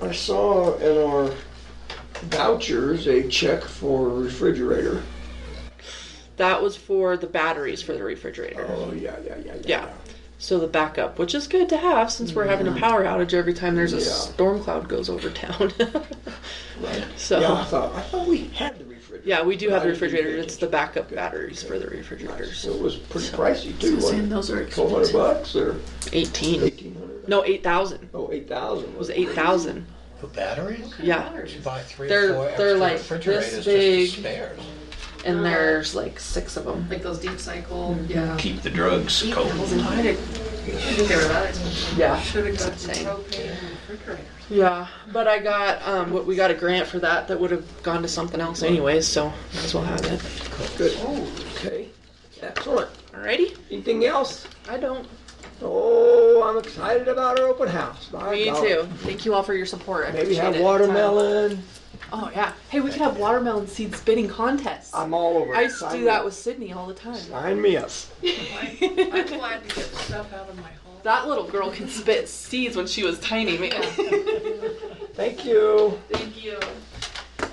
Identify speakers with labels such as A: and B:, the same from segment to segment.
A: I saw in our vouchers a check for a refrigerator.
B: That was for the batteries for the refrigerator.
A: Oh, yeah, yeah, yeah, yeah.
B: Yeah. So the backup, which is good to have since we're having a power outage every time there's a
A: Yeah.
B: storm cloud goes over town.
A: Right.
B: So-
A: yeah, I thought I thought we had the refrigerator.
B: yeah, we do
A: but
B: have
A: I
B: the
A: didn't
B: refrigerator.
A: think
B: It's
A: it-
B: the backup
A: okay,
B: batteries
A: okay,
B: for the
A: nice.
B: refrigerators.
A: So it was pretty pricey too.
C: So
A: wasn't
C: saying
A: it?
C: those are
A: Twelve hundred
C: expensive.
A: bucks or
B: 18.
A: eighteen hundred?
B: No, 8,000. It
A: Oh, eight thousand.
B: was 8,000.
D: For batteries?
B: Yeah.
D: You buy three
B: They're-
D: or four
B: they're
D: extra
B: like
D: refrigerators
B: this
D: just as
B: big.
D: spares.
B: And there's like six of them.
C: Like those deep cycle, yeah.
E: Keep the drugs cold.
C: Why did, they were that expensive?
B: Yeah.
C: Should have got some
B: Insane.
C: propane and refrigerators.
B: Yeah, but I got um, what we got a grant for that that would have gone to something else anyways, so might as well have it.
A: Good. Okay. Excellent.
B: Alrighty,
A: Anything else?
B: I don't.
A: Oh, I'm excited about our open house. My
B: Me
A: God.
B: too. Thank you all for your support. I
A: Maybe
B: appreciate
A: have
B: it.
A: watermelon.
B: Oh yeah. Hey, we could have watermelon seed spitting contests.
A: I'm all over. it.
B: I used to
A: Sign
B: do
A: me
B: that
A: up.
B: with Sydney all the time.
A: Sign me up.
C: I'm glad to get stuff out of my home.
B: That little girl could spit seeds when she was tiny, man.
A: Thank you.
B: Thank you.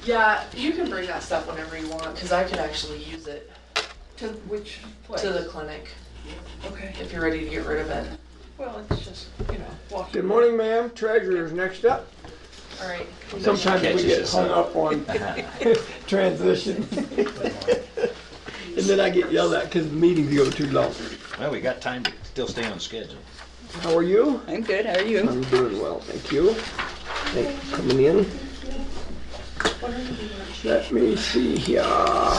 B: Yeah, you can bring that stuff whenever you want, because I could actually use it
C: To which place?
B: to the clinic
C: Okay,
B: if you're ready to get rid of it.
C: well, it's just, you know, walking.
A: Good morning, ma'am. Treasurer's next up.
B: All right.
A: Sometimes we
E: Catches
A: get
E: us
A: hung
E: up.
A: up on transition. And then I get yelled at because the meetings go too long.
E: Well, we got time to still stay on schedule.
A: How are you?
F: I'm good. How are you?
A: I'm doing well, thank you. Thanks for coming in. Let me see here.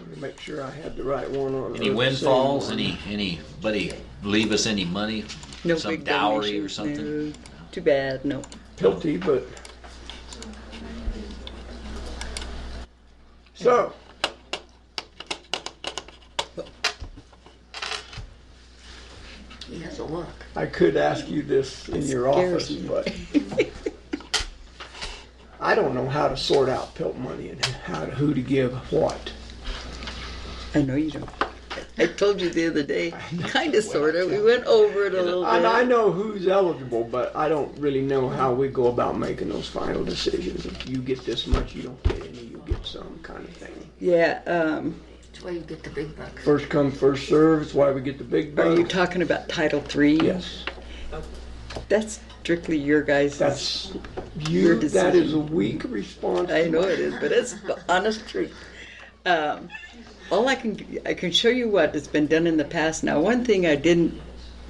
A: Let me Make sure I had the right one on.
E: Any
A: or the
E: windfalls?
A: same
E: Any anybody leave us any money?
F: No
E: Some
F: big
E: dowry
F: donations,
E: or something?
F: no. Too bad. No.
A: one. Guilty, but. So,
C: He has a look.
A: I could ask you this in your
F: Scares
A: office,
F: me.
A: but. I don't know how to sort out pilt money and how to, who to give what.
F: I know you don't. I told you the other day, kind of, sort of. We went over it a little
A: And I
F: bit.
A: know who's eligible, but I don't really know how we go about making those final decisions. If you get this much, you don't get any, you get some kind of thing.
F: Yeah. Um,
C: That's why you get the big bucks.
A: First come, first serve. It's why we get the big
F: are you
A: bucks.
F: talking about Title Three?
A: Yes,
F: That's strictly your guys'.
A: that's you,
F: Your
A: that
F: decision.
A: is a weak response.
F: I
A: to
F: know
A: my-
F: it is, but it's the honest truth. Um, all I can I can show you what has been done in the past. Now, one thing I didn't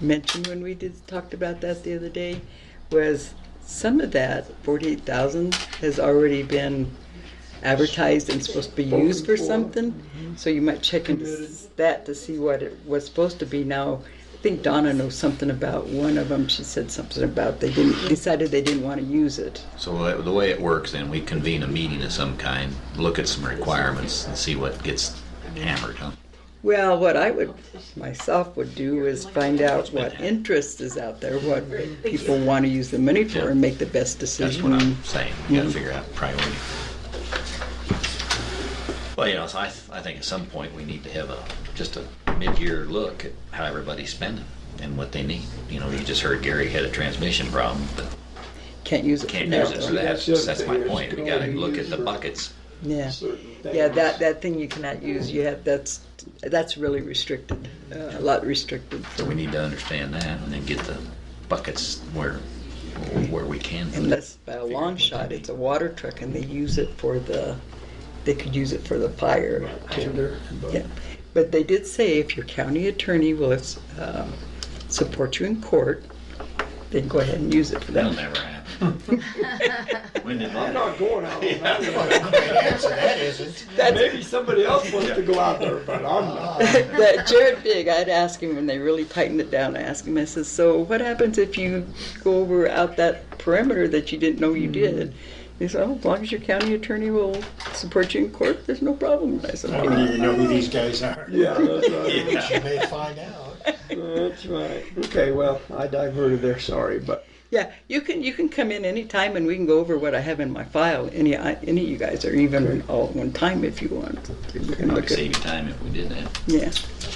F: mention when we did talked about that the other day was some of that forty eight thousand has already been advertised and supposed to be used for
A: for.
F: something. So you might check into s- that to see what it was supposed to be. Now, I think Donna knows something about one of them. She said something about they didn't decided they didn't want to use it.
E: So that- the way it works, then we convene a meeting of some kind, look at some requirements, and see what gets hammered. Huh?
F: Well, what I would myself would do is find out what interest is out there, what people want to use the money for, and make the best
E: That's
F: decision.
E: what I'm saying. We got to figure out priority. Well, you know, so I, I think at some point we need to have a just a mid-year look at how everybody's spending and what they need. You know, you just heard Gary had a transmission problem, but
F: Can't use it.
E: can't
F: for
E: use
F: that,
E: it for
F: though.
E: that. So that's my point. We got to look at the buckets.
F: Yeah,
A: Certain things.
F: yeah. That that thing you cannot use. You have that's that's really restricted. Uh, a lot restricted.
E: So we need to understand that and then get the buckets where where we can. for that.
F: Unless by a long shot, it's a water truck, and they use it for the. They could use it for the fire.
A: Tender, but-
F: Yeah, but they did say if your county attorney will um, support you in court, then go ahead and use it for
E: That'll
F: that.
E: never happen. when did
A: I'm
E: that?
A: not going out. on that one.
D: Answer that isn't.
A: Maybe somebody else wants to go out there, but I'm not.
F: But Jared Big, I'd ask him when they really tightened it down. I asked him, I says, so what happens if you go over out that perimeter that you didn't know you did? He said, oh, as long as your county attorney will support you in court, there's no problem. And I said,
D: I don't
F: "Okay."
D: even know who these guys are.
A: Yeah, that's right.
D: You may find out.
A: That's right. Okay, well, I diverted there, sorry, but
F: yeah, you can you can come in any time and we can go over what I have in my file. Any I- any of you guys, or even all at one time if you want. We can
E: Probably
F: look at-
E: save you time if we did that.
F: Yeah.